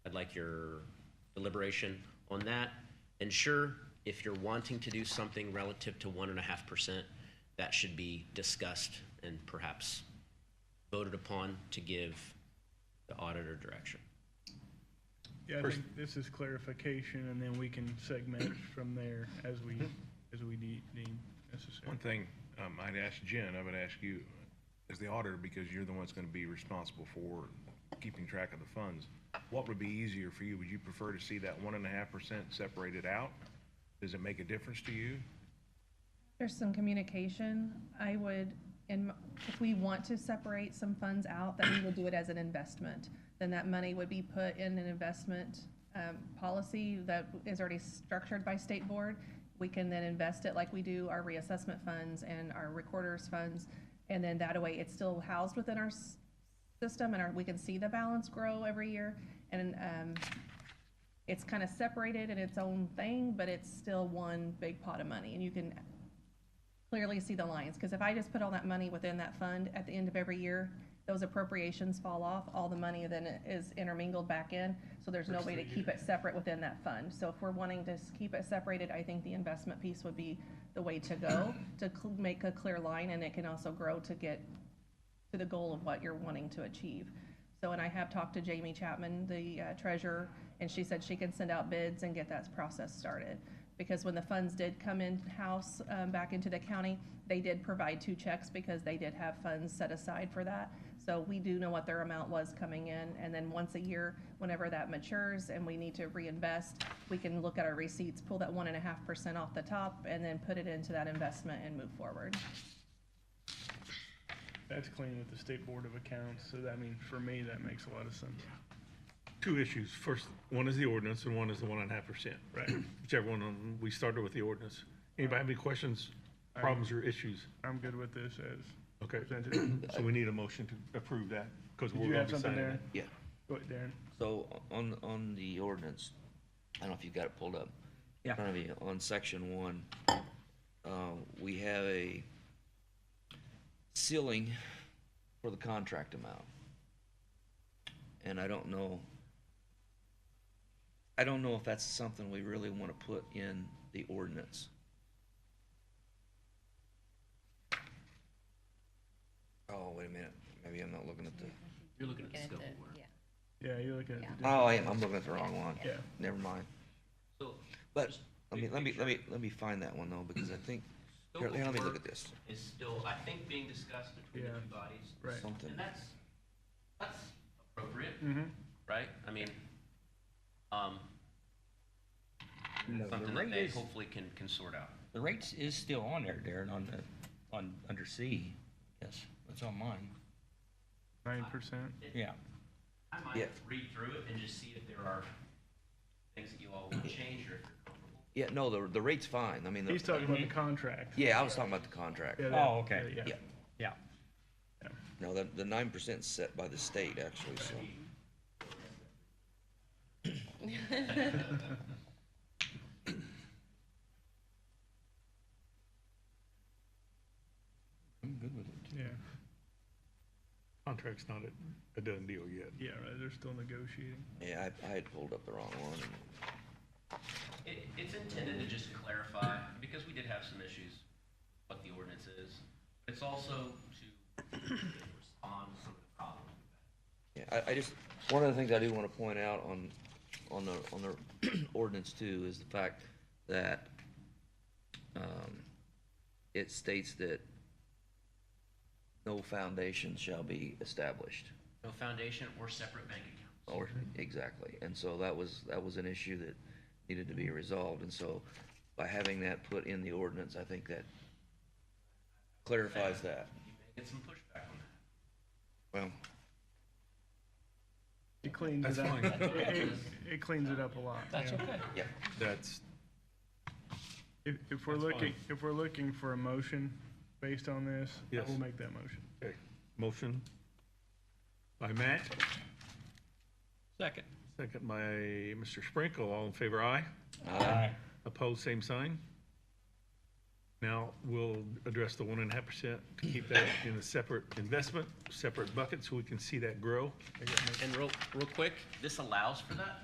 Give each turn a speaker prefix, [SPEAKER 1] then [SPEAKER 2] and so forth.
[SPEAKER 1] like your deliberation on that. And sure, if you're wanting to do something relative to one and a half percent, that should be discussed and perhaps voted upon to give the auditor direction.
[SPEAKER 2] Yeah, I think this is clarification, and then we can segment from there as we, as we de- deem necessary.
[SPEAKER 3] One thing um, I'd ask Jen, I would ask you, as the auditor, because you're the one that's going to be responsible for keeping track of the funds, what would be easier for you? Would you prefer to see that one and a half percent separated out? Does it make a difference to you?
[SPEAKER 4] There's some communication. I would, and if we want to separate some funds out, then we would do it as an investment. Then that money would be put in an investment um, policy that is already structured by state board. We can then invest it like we do our reassessment funds and our recorder's funds. And then that way, it's still housed within our s- system and our, we can see the balance grow every year. And um, it's kind of separated in its own thing, but it's still one big pot of money. And you can clearly see the lines, because if I just put all that money within that fund, at the end of every year, those appropriations fall off, all the money then is intermingled back in, so there's no way to keep it separate within that fund. So if we're wanting to s- keep it separated, I think the investment piece would be the way to go, to cl- make a clear line, and it can also grow to get to the goal of what you're wanting to achieve. So, and I have talked to Jamie Chapman, the uh, treasurer, and she said she can send out bids and get that process started. Because when the funds did come in-house, um, back into the county, they did provide two checks because they did have funds set aside for that. So we do know what their amount was coming in, and then once a year, whenever that matures and we need to reinvest, we can look at our receipts, pull that one and a half percent off the top, and then put it into that investment and move forward.
[SPEAKER 2] That's clean with the State Board of Accounts, so that, I mean, for me, that makes a lot of sense.
[SPEAKER 5] Two issues. First, one is the ordinance and one is the one and a half percent. Right. Whichever one, of them, we started with the ordinance. Anybody have any questions, problems or issues?
[SPEAKER 2] I'm good with this as
[SPEAKER 5] Okay,
[SPEAKER 2] presented.
[SPEAKER 5] so we need a motion to approve that because
[SPEAKER 2] Did
[SPEAKER 5] we're
[SPEAKER 2] you
[SPEAKER 5] going
[SPEAKER 2] have
[SPEAKER 5] to be
[SPEAKER 2] something,
[SPEAKER 5] signing
[SPEAKER 2] Darren?
[SPEAKER 5] it.
[SPEAKER 6] Yeah,
[SPEAKER 2] Go ahead, Darren.
[SPEAKER 6] so on, on the ordinance, I don't know if you got it pulled up. in
[SPEAKER 7] Yeah.
[SPEAKER 6] front of you. on section one, uh, we have a ceiling for the contract amount. And I don't know, I don't know if that's something we really want to put in the ordinance. Oh, wait a minute, maybe I'm not looking at the,
[SPEAKER 1] You're looking at the scope of work.
[SPEAKER 2] Yeah, you're looking at the.
[SPEAKER 6] oh, I am, I'm looking at the wrong one.
[SPEAKER 2] Yeah.
[SPEAKER 6] Never mind.
[SPEAKER 1] So
[SPEAKER 6] But,
[SPEAKER 1] Just
[SPEAKER 6] let me,
[SPEAKER 1] big
[SPEAKER 6] let me, let me, let me find that one though, because I think,
[SPEAKER 1] Scope
[SPEAKER 6] here,
[SPEAKER 1] of
[SPEAKER 6] here, let me look
[SPEAKER 1] work
[SPEAKER 6] at this,
[SPEAKER 1] is still, I think, being discussed between the
[SPEAKER 2] Yeah.
[SPEAKER 1] two bodies.
[SPEAKER 2] Right.
[SPEAKER 6] something.
[SPEAKER 1] And that's, that's appropriate,
[SPEAKER 2] Mm-hmm.
[SPEAKER 1] right? I mean, um,
[SPEAKER 7] No, the
[SPEAKER 1] something that
[SPEAKER 7] rate
[SPEAKER 1] they
[SPEAKER 7] is,
[SPEAKER 1] hopefully can, can sort out.
[SPEAKER 7] the rates is still on there, Darren, on the, on, under C. Yes, that's on mine.
[SPEAKER 2] Nine percent.
[SPEAKER 7] Yeah.
[SPEAKER 1] I
[SPEAKER 6] Yeah.
[SPEAKER 1] might read through it and just see if there are things that you all want to change or if you're comfortable.
[SPEAKER 6] Yeah, no, the, the rate's fine, I mean, the-
[SPEAKER 2] He's talking about the
[SPEAKER 5] Mm-hmm.
[SPEAKER 2] contract.
[SPEAKER 6] yeah, I was talking about the contract.
[SPEAKER 2] Yeah, that-
[SPEAKER 7] Oh, okay.
[SPEAKER 2] yeah,
[SPEAKER 6] Yeah,
[SPEAKER 7] Yeah.
[SPEAKER 6] no, the, the nine percent's set by the state actually, so.
[SPEAKER 7] I'm good with it.
[SPEAKER 2] Yeah,
[SPEAKER 5] Contract's not a, a done deal yet.
[SPEAKER 2] yeah, right, they're still negotiating.
[SPEAKER 6] Yeah, I, I had pulled up the wrong one.
[SPEAKER 1] It, it's intended to just clarify, because we did have some issues, what the ordinance is. It's also to respond to some of the problems.
[SPEAKER 6] Yeah, I, I just, one of the things I do wanna point out on, on the, on the ordinance too, is the fact that, um, it states that no foundation shall be established.
[SPEAKER 1] No foundation or separate bank account.
[SPEAKER 6] Or, exactly, and so that was, that was an issue that needed to be resolved, and so by having that put in the ordinance, I think that clarifies that.
[SPEAKER 1] You may get some pushback on that.
[SPEAKER 6] Well,
[SPEAKER 2] It cleans
[SPEAKER 5] That's
[SPEAKER 2] it up.
[SPEAKER 5] fine.
[SPEAKER 2] It, it- it cleans it up a lot. yeah.
[SPEAKER 6] yeah,
[SPEAKER 5] That's,
[SPEAKER 2] If, if we're
[SPEAKER 5] That's fine.
[SPEAKER 2] looking, if we're looking for a motion based on this, I
[SPEAKER 5] Yes.
[SPEAKER 2] will make that motion.
[SPEAKER 5] okay. Motion by Matt,
[SPEAKER 7] Second.
[SPEAKER 5] second by Mr. Sprinkle. All in favor, aye?
[SPEAKER 7] Aye.
[SPEAKER 5] Opposed, same sign. Now, we'll address the one and a half percent to keep that in a separate investment, separate bucket, so we can see that grow.
[SPEAKER 1] And real, real quick, this allows for that,